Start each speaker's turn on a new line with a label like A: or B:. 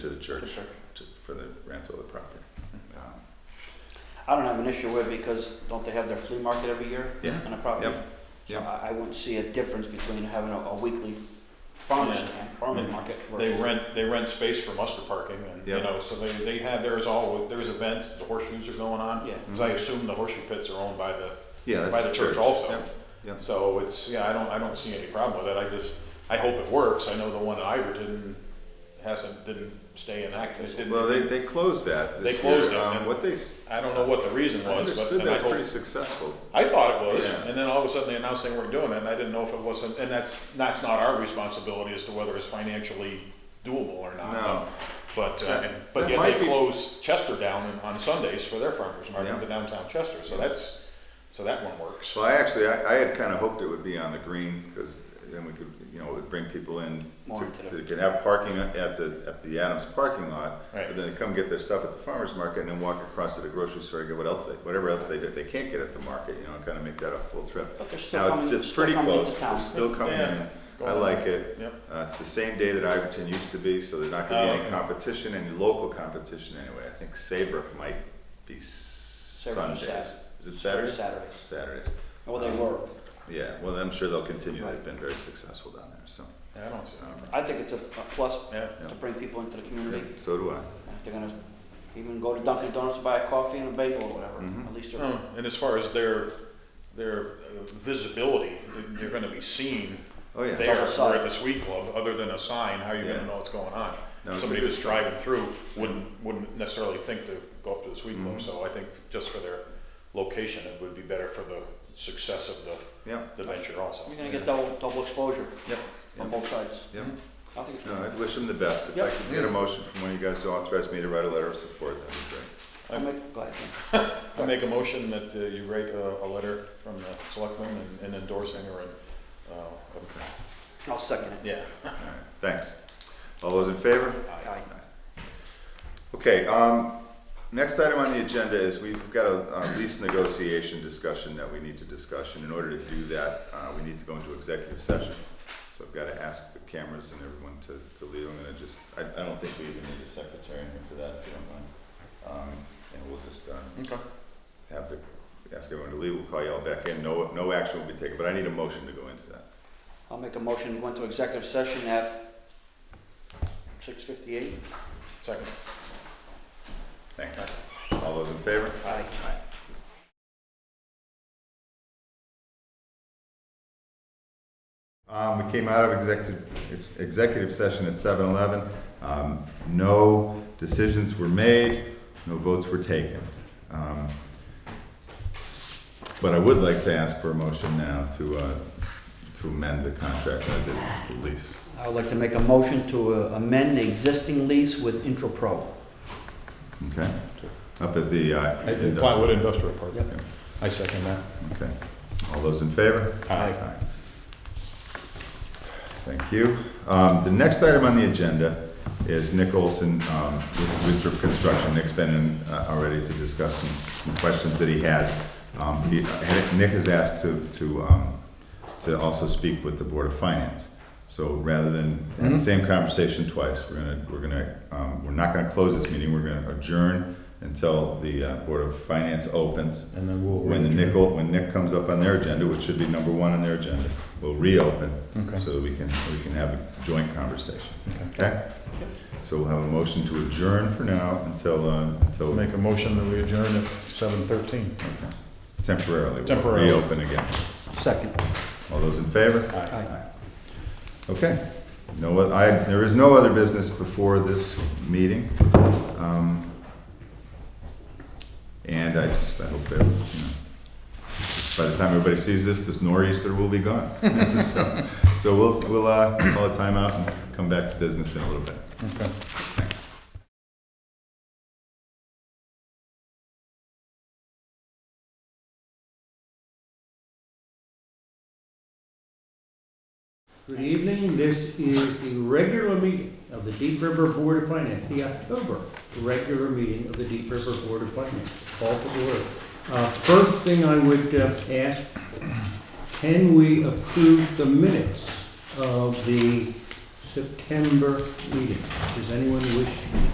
A: to the church
B: Sure.
A: to- for the rental of the property.
C: Mm-hmm.
A: Um,
B: I don't have an issue with it because don't they have their flea market every year
A: Yeah,
B: on a property?
A: Yep,
B: So
A: yep.
B: I, I wouldn't see a difference between having a, a weekly farmer's
C: Yeah.
B: stand, farmer's
C: Yeah.
B: market
C: They
B: versus.
C: rent, they rent space for muster parking and, you
A: Yep.
C: know, so they, they have, there's all, there's events, the horseshoes are going on.
B: Yeah.
C: Cause I assume the horseshoe pits are owned by the,
A: yeah. that's
C: by the church also.
A: Yep, yep.
C: So it's, yeah, I don't, I don't see any problem with it. I just, I hope it works. I know the one in Iverton hasn't, didn't stay in action. It
A: Well,
C: didn't,
A: they, they closed that
C: They
A: this year.
C: closed it,
A: Um,
C: and-
A: What they, s-
C: I don't know what the reason
A: I
C: was, but,
A: understood
C: and I
A: that's
C: hope
A: pretty successful.
C: I thought it was,
A: Yeah.
C: and then all of a sudden they announced they weren't doing it, and I didn't know if it wasn't, and that's, that's not our responsibility as to whether it's financially doable or not.
A: No.
C: But, uh,
A: That-
C: and-
A: that
C: but yet
A: might
C: they
A: be-
C: close Chester down in- on Sundays for their farmers market,
A: Yeah.
C: the downtown Chester, so that's, so that one works.
A: So I actually, I, I had kind of hoped it would be on the green because then we could, you know, it would bring people in
B: More into
A: to,
B: the-
A: to can have parking at the, at the Adams parking lot.
C: Right.
A: But then they come get their stuff at the farmer's market and then walk across to the grocery store and get what else they, whatever else they, they can't get at the market, you know, and kind of make that a full trip.
B: But they're still
A: Now, it's,
B: coming,
A: it's
B: still
A: pretty
B: coming
A: close,
B: into
A: they're
B: town.
A: still coming
C: Yeah,
A: in.
C: it's
A: I
C: going
A: like it.
C: Yep,
A: Uh, it's the same day that Iverton used to be, so there's not gonna
C: Oh,
A: be any
C: okay.
A: competition, any local competition anyway. I think Saybrook might be Sundays.
B: Sat-
A: Is it Saturdays?
B: Saturdays.
A: Saturdays.
B: Well, they were.
A: Yeah, well, I'm sure they'll continue. They've been very successful down there, so.
C: yeah, I don't see
A: um,
B: I think it's a, a plus
C: yeah,
B: to bring people into the community.
A: yeah, So do I.
B: And If they're gonna even go to Dunkin' Donuts, buy a coffee and a bagel or whatever,
A: Mhm.
B: at least they're,
C: No, and as far as their, their uh, visibility, they're gonna be seen
A: Oh, yeah.
C: there
B: Double
C: or at
B: side.
C: the sweet club, other than a sign, how you
A: Yeah.
C: gonna know what's going on?
A: No, it's a
C: Somebody
A: good-
C: that's driving through wouldn't, wouldn't necessarily think to go up to the sweet club,
A: Mhm.
C: so I think just for their location, it would be better for the success of the,
A: Yep,
C: the venture also.
B: you're gonna get double, double exposure
A: yep,
B: on
A: yep,
B: both sides.
A: yep.
B: I think it's
A: No,
B: good.
A: I'd wish them the best. If I
B: Yep.
A: could get a motion from one of you guys to authorize me to write a letter of support, that'd be great.
B: I'll make, go ahead, Jim.
C: I make a motion that uh, you write a, a letter from the selectmen and- and endorsing or, uh,
B: I'll second it.
C: yeah.
A: All right, Thanks. All those in favor?
B: Aye.
A: Okay, um, next item on the agenda is we've got a, uh lease negotiation discussion that we need to discussion. In order to do that, uh, we need to go into executive session. So I've gotta ask the cameras and everyone to, to leave. I'm gonna just, I, I don't think we even need a secretary in here for that, if you don't mind. Um, and we'll just, uh,
C: Okay.
A: have the, ask everyone to leave. We'll call you all back in. No, no action will be taken, but I need a motion to go into that.
B: I'll make a motion, to go into executive session at six fifty-eight.
C: Second.
A: Thanks. All those in favor?
B: Aye.
A: Aye. Um, we came out of executive, executive session at seven eleven. Um, no decisions were made, no votes were taken. Um, But I would like to ask for a motion now to, uh, to amend the contract, I did the lease.
B: I would like to make a motion to uh, amend the existing lease with IntroPro.
A: Okay? Up at the, uh.
C: Plywood Industrial Park.
B: Yep.
C: I second that.
A: Okay. All those in favor?
C: Aye.
A: Thank you. Um, The next item on the agenda is Nick Olson um, with Winthrop Construction. Nick's been in uh, already to discuss some some questions that he has. Um, he- Nick has asked to, to, um, to also speak with the Board of Finance. So rather than have the same conversation twice, we're gonna, we're gonna, um, we're not gonna close this meeting, we're gonna adjourn until the uh, Board of Finance opens.
C: And then we'll.
A: When the nickel, when Nick comes up on their agenda, which should be number one on their agenda, we'll reopen
C: Okay.
A: so that we can, we can have a joint conversation, okay?
C: Yep.
A: So we'll have a motion to adjourn for now until, uh, until
C: a motion that we adjourn at seven thirteen.
A: okay. temporarily. we'll
C: Temporarily.
A: Reopen again.
B: Second.
A: All those in favor?
C: Aye.
A: Okay. No, oth- I, there is no other business before this meeting. Um, And I just, I hope that, you know, by the time everybody sees this, this nor'easter will be gone. So so we'll, we'll uh, call a timeout and come back to business in a little bit.
C: Okay.
D: Good evening, this is the regular meeting of the Deep River Board of Finance, the October regular meeting of the Deep River Board of Finance, call to order. Uh, First thing I would uh, ask, can we approve the minutes of the September meeting. Does anyone wish